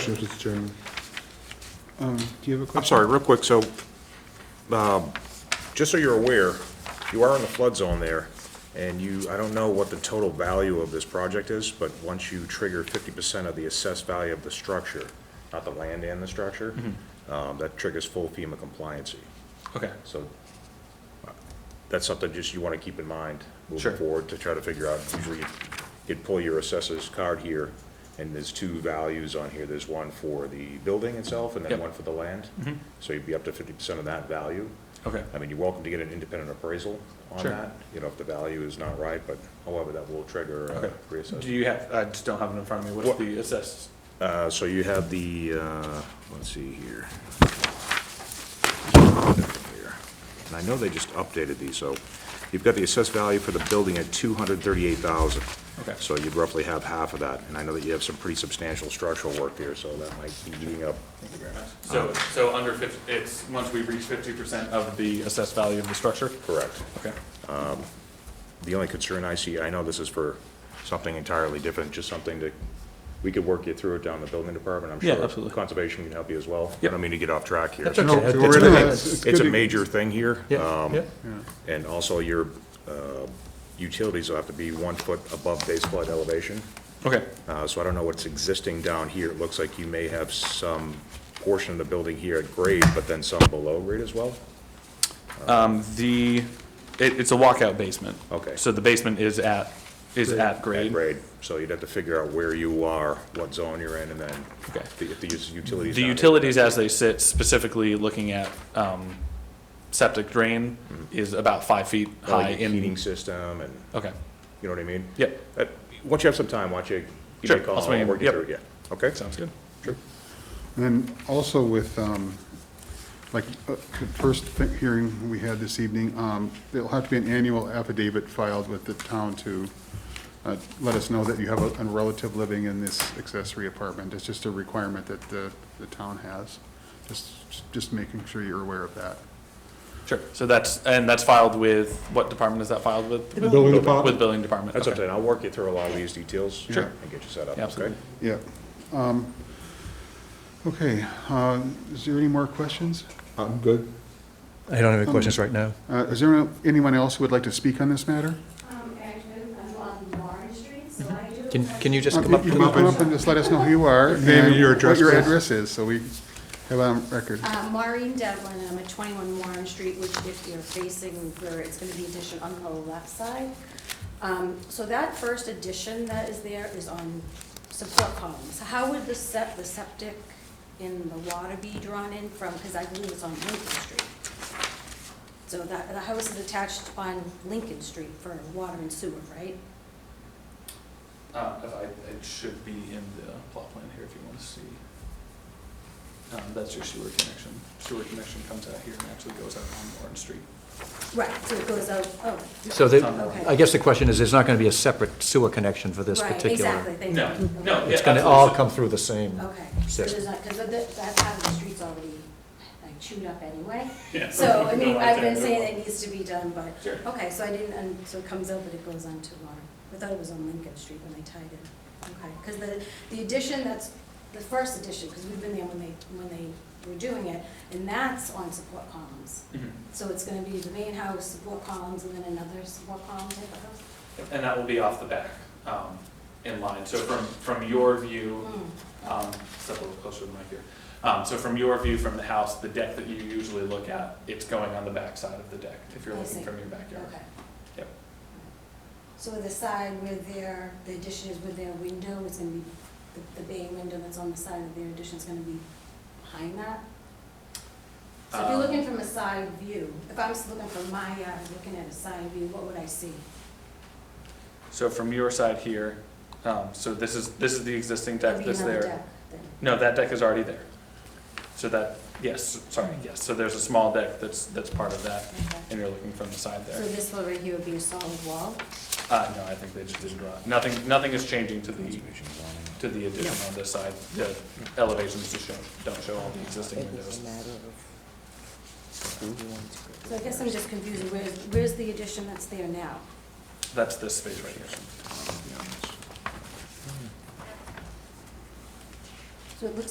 questions, Mr. Chairman. Um, Do you have a question? I'm sorry, real quick, so, um, just so you're aware, you are in the flood zone there, and you, I don't know what the total value of this project is, but once you trigger fifty percent of the assessed value of the structure, not the land and the structure, um, that triggers full FEMA compliancy. Mm-hmm. Okay, So, uh, that's something just you wanna keep in mind Sure. moving forward to try to figure out, usually you- you'd pull your assessor's card here, and there's two values on here, there's one for the building itself and then Yep. one for the land. Mm-hmm. So you'd be up to fifty percent of that value. okay, I mean, you're welcome to get an independent appraisal on Sure. that, you know, if the value is not right, but however, that will trigger uh, okay. a reassessment. Do you have, I just don't have it in front of me, what's What- the assessed? Uh, so you have the, uh, let's see here. And I know they just updated these, so you've got the assessed value for the building at two hundred thirty-eight thousand. Okay. So you'd roughly have half of that, and I know that you have some pretty substantial structural work here, so that might be eating up. Uh, So, so under fifty, it's, once we reach fifty percent of the assessed value of the structure? Correct. Okay, The only concern I see, I know this is for something entirely different, just something that, we could work you through it down the building department, I'm sure. Yeah, absolutely. Conservation can help you as well. I Yep. don't mean to get off track here. That's So- No, Okay, we're that's in good. it. Yeah, It's a good. major thing here. um, yeah, And also your uh, utilities will have to be one foot above base flood elevation. okay, Uh, So I don't know what's existing down here. It looks like you may have some portion of the building here at grade, but then some below grade as well? um, the, it, it's a walkout basement. Okay. So the basement is at, is at At grade? grade. So you'd have to figure out where you are, what zone you're in, and then Okay. the- if the us- utilities. The down here- utilities as they sit, specifically looking at, um, septic drain is about five feet Well, high your in. Heating system and, Okay, you know what I mean? Yep. Uh, Once you have some time, why don't you give Sure, me a call, I'll swing I'll in. work you Yep. through it, yeah. Okay? sounds good. Sure. And then also with, um, like, uh, the first thi- hearing we had this evening, um, there'll have to be an annual affidavit filed with the town to uh, let us know that you have a a relative living in this accessory apartment. It's just a requirement that the, the town has. Just, just making sure you're aware of that. Sure, so that's, and that's filed with, what department is that filed with? The building department. With building department, That's what I'm okay. saying, I'll work you through a lot of these details. Sure. And get you set up, Yeah, okay? absolutely. Yeah. Um, Okay, uh, is there any more questions? I'm good. I don't have any questions right now. Uh, Is there anyone else who would like to speak on this matter? Um, Edmund, I'm on Warren Street, so I do. Can, can you just Uh, come up? You to can the- come up and just let us know who you are. Name and your What your address, please. address is, so we have on record. Uh, Maureen Devlin, and I'm at twenty-one Warren Street, which if you're facing where it's gonna be addition on the left side. Um, so that first addition that is there is on support columns. How would the sep, the septic in the water be drawn in from, because I believe it's on Lincoln Street. So that, the house is attached on Lincoln Street for water and sewer, right? Uh, if I, it should be in the plot plan here if you want to see. Um, that's your sewer connection. Sewer connection comes out here and actually goes out on Warren Street. Right, so it goes out, oh. So that, Okay. I guess the question is, there's not going to be a separate sewer connection for this Right, particular? exactly, thank you. No, no, yeah, It's going to all come through the same Okay, so system. there's not, because that part of the street's already like chewed up anyway. Yeah. So, I mean, No, I've been I- saying it needs to be done, but, Sure. okay, so I didn't, and so it comes out that it goes on to water. I thought it was on Lincoln Street when they tied it. Okay, because the, the addition, that's the first addition, because we've been there when they, when they were doing it, and that's on support columns. Mhm. So it's gonna be the main house, support columns, and then another support column type of house? And that will be off the back, um, in line. So from, from your view, Hmm. um, step a little closer to the mic here. Um, so from your view from the house, the deck that you usually look at, it's going on the back side of the deck if you're I looking see. from your Hmm, backyard. okay. Yep. So the side where their, the addition is with their window, it's gonna be, the- the bay window that's on the side of their addition is gonna be behind that? So if you're Um, looking from a side view, if I was looking from my yard, looking at a side view, what would I see? So from your side here, um, so this is, this is the existing deck Maybe that's another there. deck then. No, that deck is already there. So that, yes, sorry, yes, so there's a small deck that's, that's part of that, Okay. and you're looking from the side So there. this one right here would be a solid wall? Uh, no, I think they just didn't draw, it. nothing, nothing is changing to the, to the addition on this side. The elevations just show, don't show all the existing windows. So I guess I'm just confused, where's, where's the addition that's there now? That's this space right here. So it looks